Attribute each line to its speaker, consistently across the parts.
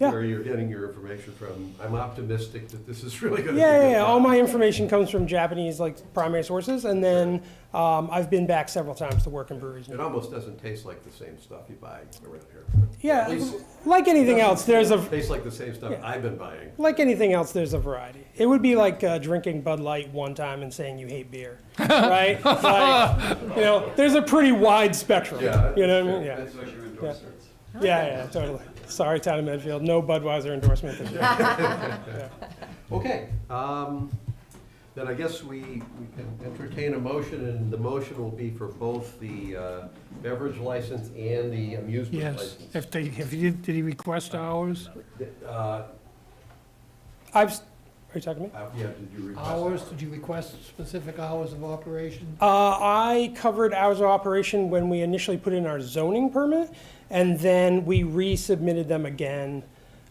Speaker 1: Yeah.
Speaker 2: where you're getting your information from. I'm optimistic that this is really going to.
Speaker 1: Yeah, yeah, yeah. All my information comes from Japanese like primary sources, and then um, I've been back several times to work in breweries.
Speaker 2: It almost doesn't taste like the same stuff you buy around here. At
Speaker 1: Yeah,
Speaker 2: least
Speaker 1: like anything else, there's a
Speaker 2: tastes like the same stuff I've been buying.
Speaker 1: like anything else, there's a variety. It would be like uh, drinking Bud Light one time and saying you hate beer, right? like, you know, there's a pretty wide spectrum.
Speaker 2: Yeah,
Speaker 1: you know what I mean?
Speaker 2: yeah.
Speaker 1: Yeah.
Speaker 3: That's what you endorse. it.
Speaker 1: yeah, yeah, totally. Sorry, town of Medfield, no Budweiser endorsement this year.
Speaker 2: Okay, um, then I guess we we can entertain a motion, and the motion will be for both the uh, beverage license and the amusement
Speaker 4: Yes,
Speaker 2: license.
Speaker 4: if they, if he, did he request hours?
Speaker 2: Uh,
Speaker 1: I've, s- are you talking to me?
Speaker 2: uh, Yeah, did you request?
Speaker 5: Hours, did you request specific hours of operation?
Speaker 1: Uh, I covered hours of operation when we initially put in our zoning permit, and then we resubmitted them again,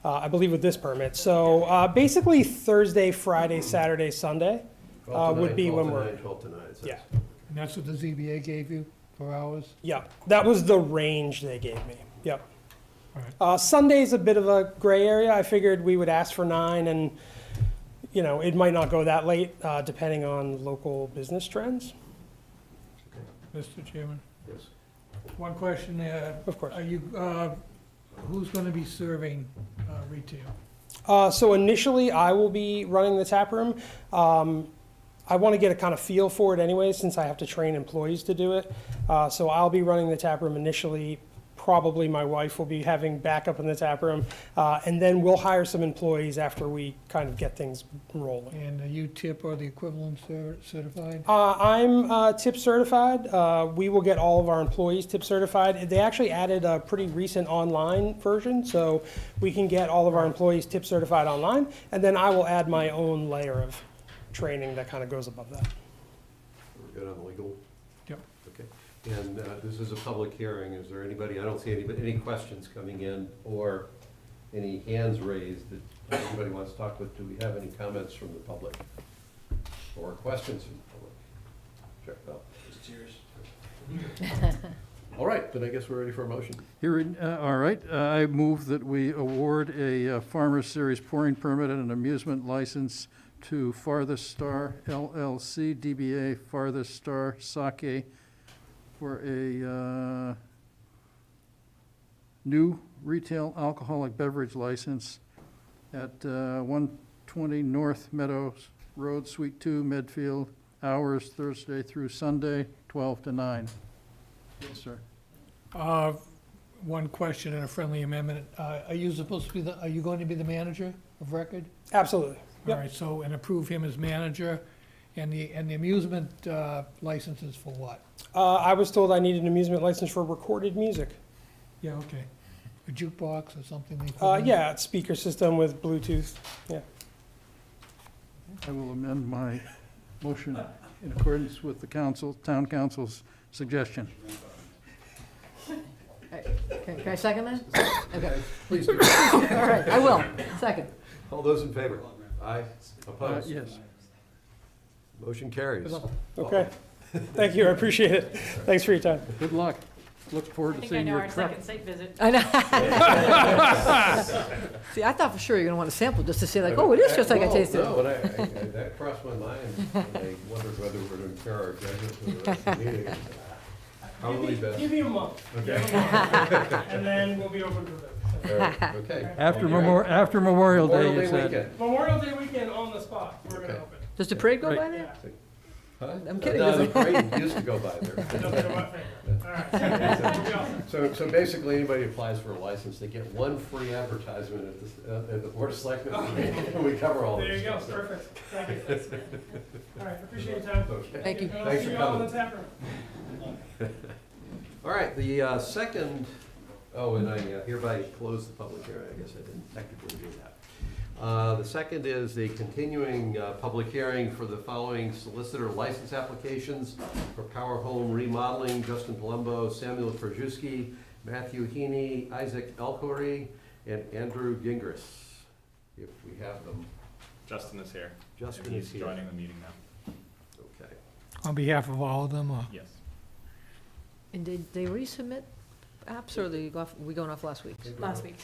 Speaker 1: uh, I believe with this permit. So, uh, basically Thursday, Friday, Saturday, Sunday.
Speaker 2: Twelve to
Speaker 1: uh, would
Speaker 2: nine,
Speaker 1: be
Speaker 2: twelve
Speaker 1: when
Speaker 2: to
Speaker 1: we're-
Speaker 2: nine, Twelve to nine, so-
Speaker 1: Yeah.
Speaker 5: And that's what the ZBA gave you for hours?
Speaker 1: Yeah, that was the range they gave me. Yep.
Speaker 4: Alright.
Speaker 1: Uh, Sunday's a bit of a gray area. I figured we would ask for nine, and you know it might not go that late, uh, depending on local business trends.
Speaker 4: Mr. Chairman,
Speaker 2: yes.
Speaker 4: one question there.
Speaker 1: Of course.
Speaker 4: Are you, uh, who's gonna be serving uh, retail?
Speaker 1: Uh, so initially, I will be running the tap room. Um, I want to get a kind of feel for it anyway, since I have to train employees to do it. Uh, so I'll be running the tap room initially. Probably my wife will be having backup in the tap room, uh, and then we'll hire some employees after we kind of get things rolling.
Speaker 5: And are you tip or the equivalent cer- certified?
Speaker 1: Uh, I'm uh, tip certified. Uh, we will get all of our employees tip certified. They actually added a pretty recent online version, so we can get all of our employees tip certified online. And then I will add my own layer of training that kind of goes above that.
Speaker 2: We're good on the legal?
Speaker 4: Yep.
Speaker 2: Okay, and uh, this is a public hearing, is there anybody, I don't see any, any questions coming in or any hands raised that anybody wants to talk with, do we have any comments from the public? Or questions from the public? Sure, Bill. All right, then I guess we're ready for a motion.
Speaker 6: Here, in- uh, all right, uh, I move that we award a uh, Farmers Series pouring permit and an amusement license to Farthest Star LLC, DBA Farthest Star Sake for a uh, new retail alcoholic beverage license at uh, 120 North Meadows Road, Suite 2, Medfield, hours Thursday through Sunday, 12 to 9. Yes, sir.
Speaker 4: Uh, One question and a friendly amendment.
Speaker 5: Uh, Are you supposed to be the, are you going to be the manager of record?
Speaker 1: Absolutely.
Speaker 5: All
Speaker 1: Yep.
Speaker 5: right, so, and approve him as manager, and the, and the amusement uh, license is for what?
Speaker 1: Uh, I was told I needed an amusement license for recorded music.
Speaker 5: Yeah, okay. A jukebox or something? they put
Speaker 1: Uh,
Speaker 2: Mm-hmm.
Speaker 5: in?
Speaker 1: yeah, it's speaker system with Bluetooth.
Speaker 6: I will amend my motion in accordance with the council, town council's suggestion.
Speaker 7: Can can I second that? Okay,
Speaker 2: Please do.
Speaker 7: all right, I will, second.
Speaker 2: All those in favor? Aye,
Speaker 6: Uh,
Speaker 2: opposed?
Speaker 6: Yes.
Speaker 2: Motion carries.
Speaker 1: Okay.
Speaker 2: Oh.
Speaker 1: Thank you. I appreciate it. Thanks for your time.
Speaker 6: Good luck. Look
Speaker 8: I
Speaker 6: forward to
Speaker 8: think I
Speaker 6: seeing
Speaker 8: know
Speaker 6: your
Speaker 8: our
Speaker 6: truck.
Speaker 8: second site visit.
Speaker 7: I know. See, I thought for sure you're gonna want to sample just to say like, oh, it is just like I
Speaker 2: Well,
Speaker 7: tasted it.
Speaker 2: No, and I, I- I- that crossed my mind, and I wondered whether we're gonna impair our judgment for the rest of the meeting. Probably best.
Speaker 1: me a month,
Speaker 2: Okay.
Speaker 1: and then we'll be open for this.
Speaker 2: All right, Okay.
Speaker 6: After Memorial, after Memorial Day,
Speaker 2: Memorial
Speaker 6: you
Speaker 2: Day
Speaker 6: said.
Speaker 2: weekend.
Speaker 1: Memorial Day weekend on the spot. We're
Speaker 2: gonna Okay.
Speaker 1: open.
Speaker 7: Does the parade go by there?
Speaker 2: Huh?
Speaker 7: I'm kidding,
Speaker 2: No, the
Speaker 7: isn't
Speaker 2: parade used to go by there. So, so basically, anybody applies for a license, they get one free advertisement at the, uh, at the Board of Selectmen, and we cover all
Speaker 1: There
Speaker 2: this.
Speaker 1: you go,
Speaker 2: stuff.
Speaker 1: perfect. Thank you. All right, appreciate your time.
Speaker 2: Okay.
Speaker 7: Thank you.
Speaker 1: And I'll
Speaker 2: Thanks
Speaker 1: see
Speaker 2: for
Speaker 1: you all
Speaker 2: coming.
Speaker 1: in the tap room.
Speaker 2: All right, the uh, second, oh, and I uh, hereby close the public hearing, I guess I didn't technically do that. Uh, The second is the continuing uh, public hearing for the following solicitor license applications for Power Home Remodeling, Justin Palumbo, Samuel Krajewski, Matthew Heaney, Isaac Elcory, and Andrew Gingras, if we have them.
Speaker 9: Justin is here.
Speaker 2: Justin is
Speaker 9: He's
Speaker 2: here.
Speaker 9: joining the meeting now.
Speaker 2: Okay.
Speaker 5: On behalf of all of them, or?
Speaker 9: Yes.
Speaker 7: And did they resubmit apps or they go off, we going off last week?
Speaker 8: Last week.